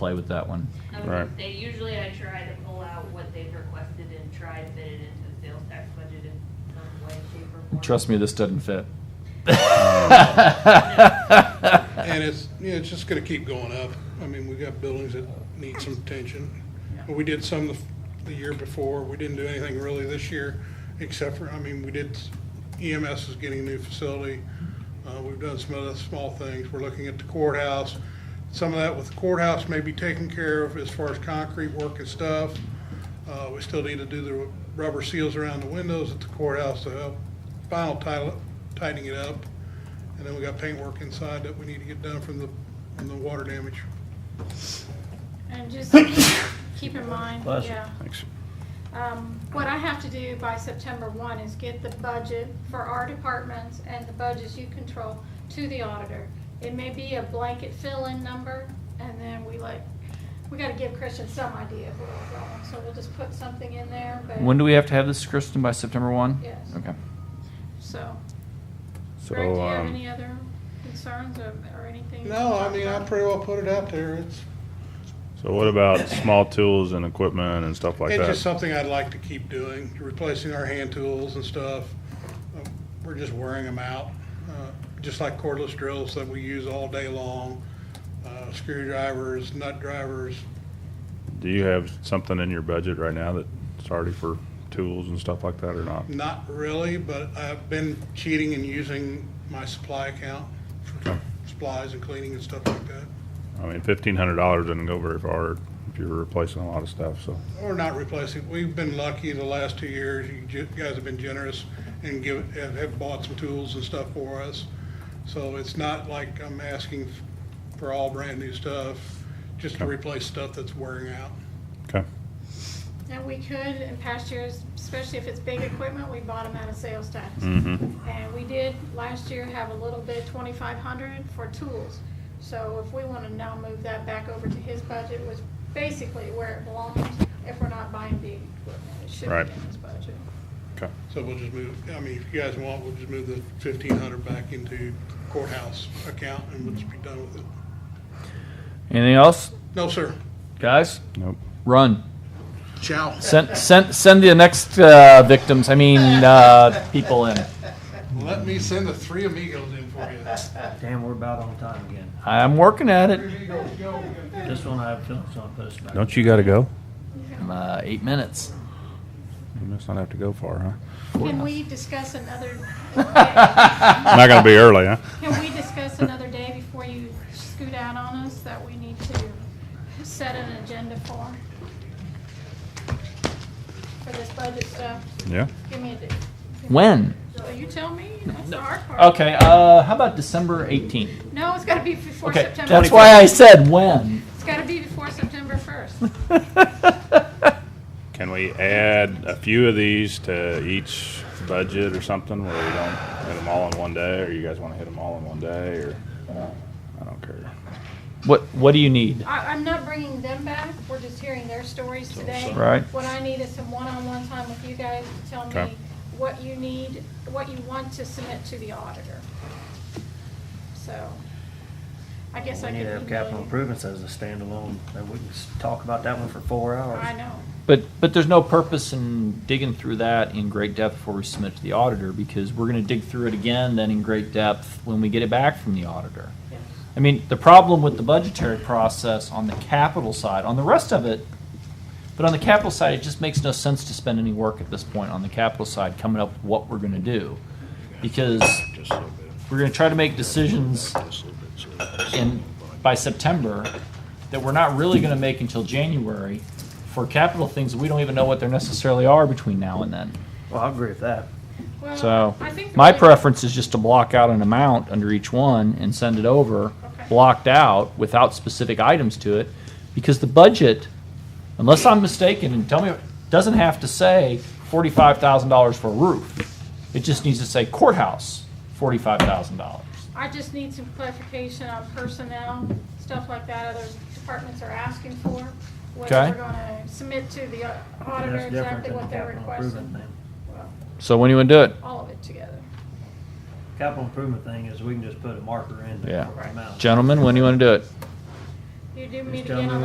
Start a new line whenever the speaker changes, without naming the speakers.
play with that one.
Um,
Right.
They usually, I try to pull out what they've requested and try and fit it into the sales tax budget in some way, shape, or form.
Trust me, this doesn't fit.
And it's, you know, it's just gonna keep going up. I mean, we got buildings that need some attention. But we did some the, the year before. We didn't do anything really this year, except for, I mean, we did, EMS is getting a new facility. Uh, we've done some other small things. We're looking at the courthouse. Some of that with the courthouse may be taken care of as far as concrete work and stuff. Uh, we still need to do the rubber seals around the windows at the courthouse to help final title, tightening it up. And then we got paintwork inside that we need to get done from the, from the water damage.
And just keep- keep in mind,
Bless you.
yeah.
Thanks.
Um, What I have to do by September 1 is get the budget for our departments and the budgets you control to the auditor. It may be a blanket fill-in number, and then we like, we gotta give Christian some idea of where we're going, so we'll just put something in there, but.
When do we have to have this, Kristen? By September one?
Yes.
Okay.
So, Greg, do you
So,
have
um,
any other concerns or or anything?
No, I mean, I pretty well put it out there. It's,
so what about small tools and equipment and stuff like
it's just
that?
something I'd like to keep doing, replacing our hand tools and stuff. Uh, We're just wearing them out, uh, just like cordless drills that we use all day long, uh, screwdrivers, nut drivers.
Do you have something in your budget right now that's already for tools and stuff like that or not?
Not really, but I've been cheating and using my supply account for supplies and cleaning and stuff like that.
I mean, fifteen hundred dollars doesn't go very far if you're replacing a lot of stuff, so.
Or not replacing, we've been lucky the last two years, you ju- guys have been generous and give, have- have bought some tools and stuff for us. So it's not like I'm asking f- for all brand-new stuff, just to
Okay.
replace stuff that's wearing out.
Okay,
And we could, in past years, especially if it's big equipment, we bought them out of sales tax.
Mhm.
And we did last year have a little bit, twenty-five hundred for tools. So if we wanna now move that back over to his budget, was basically where it belongs, if we're not buying big equipment, it should
Right.
be in his budget.
okay,
So we'll just move, I mean, if you guys want, we'll just move the fifteen hundred back into courthouse account and we'll just be done with it.
Anything else,
No, sir.
guys?
nope.
Run.
Ciao.
Send send send the next uh, victims. I mean uh, people in.
Let me send the three amigos in for you.
Damn, we're about on time again.
I'm working at it.
Three amigos, go.
This one I have feelings on, put us back.
Don't you gotta go?
Uh, eight minutes.
You must not have to go far, huh?
Can we discuss another,
I'm Not gonna be early, huh?
can we discuss another day before you scoot out on us that we need to set an agenda for? For this budget stuff?
Yeah,
Give me a date.
When?
So you tell me, that's the hard part.
Okay. Uh, how about December 18th?
No, it's gotta be before
Okay.
September.
That's why I said when.
It's gotta be before September first.
can we add a few of these to each budget or something where we don't hit them all in one day, or you guys wanna hit them all in one day, or? I don't care.
What What do you need?
I, I'm not bringing them back, we're just hearing their stories today.
Right.
What I need is some one-on-one time with you guys to tell
Okay.
me what you need, what you want to submit to the auditor. So, I guess I
We
could
need to
email
have capital
you.
improvements as a standalone, and we can s- talk about that one for four hours.
I know,
But but there's no purpose in digging through that in great depth before we submit to the auditor because we're going to dig through it again then in great depth when we get it back from the auditor.
yes.
I mean, the problem with the budgetary process on the capital side, on the rest of it, but on the capital side, it just makes no sense to spend any work at this point on the capital side coming up with what we're going to do because we're going to try to make decisions in by September that we're not really going to make until January for capital things that we don't even know what they necessarily are between now and then.
Well, I agree with that.
Well,
So,
I think the
my
way-
preference is just to block out an amount under each one and send it over,
Okay.
blocked out, without specific items to it, because the budget, unless I'm mistaken, and tell me, doesn't have to say forty-five thousand dollars for a roof. It just needs to say courthouse, forty-five thousand dollars.
I just need some clarification on personnel, stuff like that other departments are asking for. Whether
Okay.
we're gonna submit to the uh, auditor
That's different
exactly
than the
what they're
capital improvement
requesting.
thing.
Well,
So when do you want to do it?
All of it together.
Capital improvement thing is we can just put a marker in. the
Yeah.
amount.
Gentlemen, when do you want to do it?
You do meet
tell
again
me
on